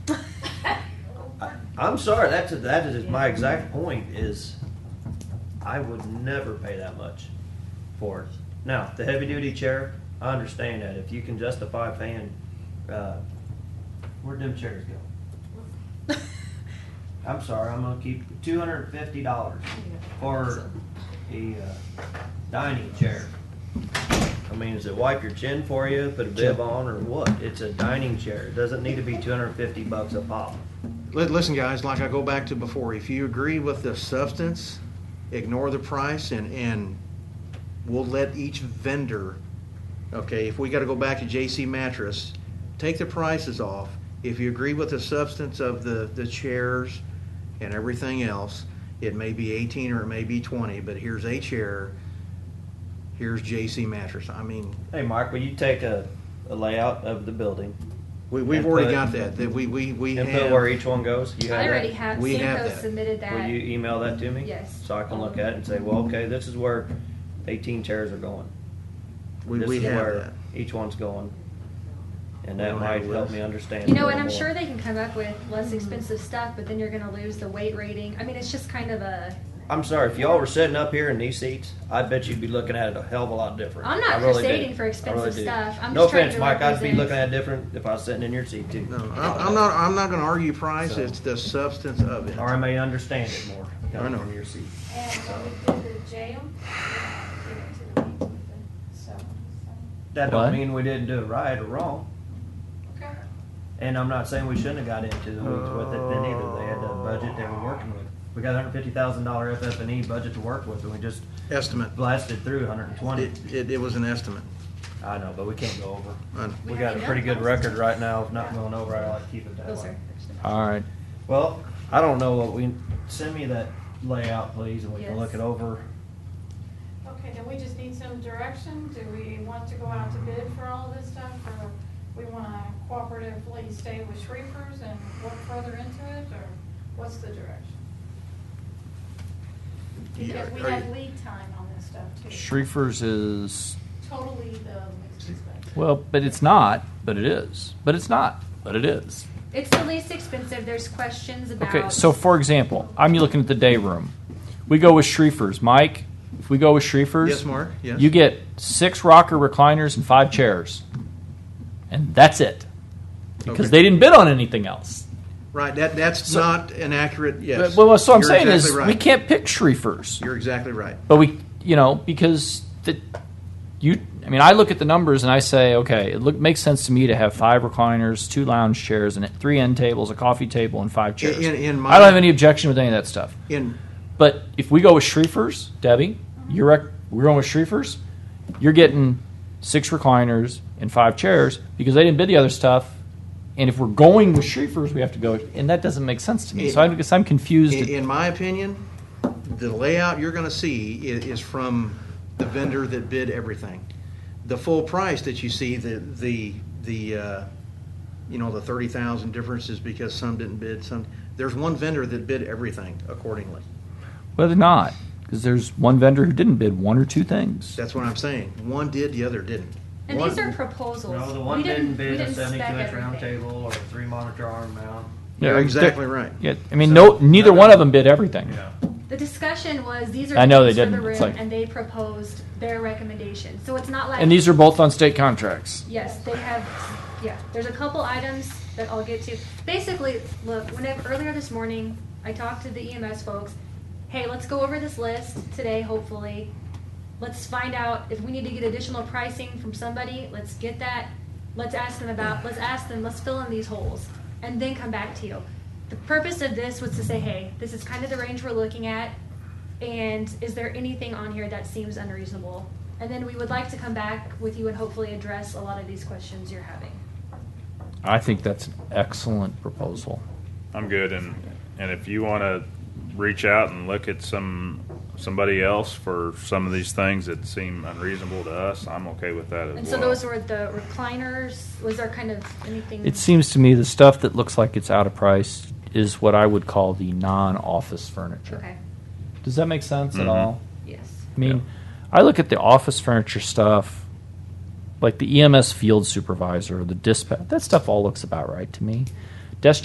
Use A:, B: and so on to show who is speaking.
A: I'm sorry. That's that is my exact point. Is I would never pay that much for it. Now the heavy duty chair, I understand that. If you can justify paying, uh, where'd them chairs go? I'm sorry. I'm gonna keep two hundred and fifty dollars for a uh, dining chair. I mean, does it wipe your chin for you? Put a bib on or what? It's a dining chair. It doesn't need to be two hundred and fifty bucks a pop.
B: Li- Listen, guys, like I go back to before, if you agree with the substance, ignore the price and, and we'll let each vendor, okay, if we gotta go back to JC mattress, take the prices off. If you agree with the substance of the, the chairs and everything else, it may be eighteen or it may be twenty, but here's a chair, here's JC mattress. I mean,
A: Hey, Mark, will you take a, a layout of the building
B: we, we've
A: And
B: already
A: put-
B: got that, that we, we, we
A: and put where
B: have,
A: each one goes? You have
C: I
A: that?
C: already have,
B: We have
C: Simcoe
B: that.
C: submitted
A: Will
C: that.
A: you email that to me?
C: Yes.
A: So I can look at it and say, well, okay, this is where 18 chairs are going.
B: we,
A: this
B: we
A: is
B: have
A: where
B: that.
A: each one's going. And
B: We
A: that
B: don't have
A: might
B: a
A: help
B: list.
A: me understand.
C: You
A: a
C: know, and
A: little
C: I'm
A: more.
C: sure they can come up with less expensive stuff, but then you're gonna lose the weight rating. I mean, it's just kind of a,
A: I'm sorry, if y'all were sitting up here in these seats, I bet you'd be looking at it a hell of a lot different.
C: I'm not
A: I really do.
C: crusading for
A: I
C: expensive
A: really do.
C: stuff. I'm
A: No
C: just trying
A: offense,
C: to
A: Mike, I'd be
C: represent-
A: looking at it different if I was sitting in your seat too.
B: No, I'm, I'm not, I'm not gonna argue price,
A: So-
B: it's the substance of it.
A: Or I may understand it more coming
B: know.
A: from your seat.
D: And when we did the jail, we did it to the people, so,
A: That don't
E: What?
A: mean we didn't do it right or wrong.
D: okay.
A: And I'm not saying we shouldn't have got into the weeds with it then either. They had a budget they were working with. We got hundred fifty thousand dollar FF&E E budget to work with, and we just
B: Estimate.
A: blasted through hundred and twenty.
B: It, it, it was an estimate.
A: I know, but we can't go over.
B: I-
A: We got a pretty good record right now of not going over. I like to keep it that
C: Those are.
A: way.
E: All right.
A: Well, I don't know what we, send me that layout, please, and we can look
C: Yes.
A: it over.
D: Okay, then we just need some direction. Do we want to go out to bid for all this stuff, or we want to cooperatively stay with Shreepers and work further into it, or what's the direction?
B: Yeah,
D: Because we
B: are
D: have
B: you-
D: lead time on this stuff, too.
E: Shreefers is
D: Totally the least expensive.
E: well, but it's not, but it is, but it's not, but it is.
C: It's the least expensive. There's questions about.
E: Okay, so for example, I'm looking at the day room. We go with Shreefers, Mike. If we go with Shreefers,
B: Yes, Mark, yes.
E: you get six rocker recliners and five chairs, and that's it, because
B: Okay.
E: they didn't bid on anything else.
B: Right, that, that's
E: So-
B: not an accurate, yes.
E: But- Well, so I'm
B: You're
E: saying
B: exactly
E: is
B: right.
E: we can't pick Shreefers,
B: You're exactly right.
E: but we, you know, because the you. I mean, I look at the numbers and I say, okay, it look, makes sense to me to have five recliners, two lounge chairs, and three end tables, a coffee table, and five chairs.
B: in- in my-
E: I don't have any objection with any of that stuff.
B: In,
E: But if we go with Shreefers, Debbie, you're rec- we're going with Shreefers. You're getting six recliners and five chairs because they didn't bid the other stuff. And if we're going with Shreefers, we have to go, and that doesn't make sense to me. So I guess I'm confused.
B: in in my opinion, the layout you're gonna see i- is from the vendor that bid everything. The full price that you see, the, the, the, uh, you know, the thirty thousand difference is because some didn't bid, some, there's one vendor that bid everything accordingly.
E: Well, they're not because there's one vendor who didn't bid one or two things.
B: That's what I'm saying. One did, the other didn't.
C: And
B: One-
C: these are proposals.
A: No, the
C: We
A: one didn't
C: we
A: bid a
C: didn't spec
A: seventy-two inch round
C: everything.
A: table or a three monitor arm mount.
B: You're
E: Yeah,
B: exactly right.
E: Yeah, I mean,
A: So-
E: no, neither one of them bid everything.
A: Yeah.
C: The discussion was these are.
E: I know they
C: things for
E: didn't.
C: the
E: It's
C: room,
E: like-
C: And they proposed their recommendation. So it's not like.
E: And these are both on state contracts.
C: Yes, they have, yeah, there's a couple items that I'll get to. Basically, look, whenever, earlier this morning, I talked to the EMS folks. Hey, let's go over this list today, hopefully. Let's find out if we need to get additional pricing from somebody, let's get that. Let's ask them about, let's ask them, let's fill in these holes and then come back to you. The purpose of this was to say, hey, this is kind of the range we're looking at. And is there anything on here that seems unreasonable? And then we would like to come back with you and hopefully address a lot of these questions you're having.
E: I think that's an excellent proposal.
F: I'm good, and and if you want to reach out and look at some somebody else for some of these things that seem unreasonable to us, I'm okay with that as
C: And
F: well.
C: so those were the recliners, was there kind of anything?
E: It seems to me the stuff that looks like it's out of price is what I would call the non-office furniture.
C: Okay,
E: Does that make sense at
F: Mhm.
E: all?
C: yes.
E: I mean, I look at the office furniture stuff, E like the EMS field supervisor, the dispatch. That stuff all looks about right to me.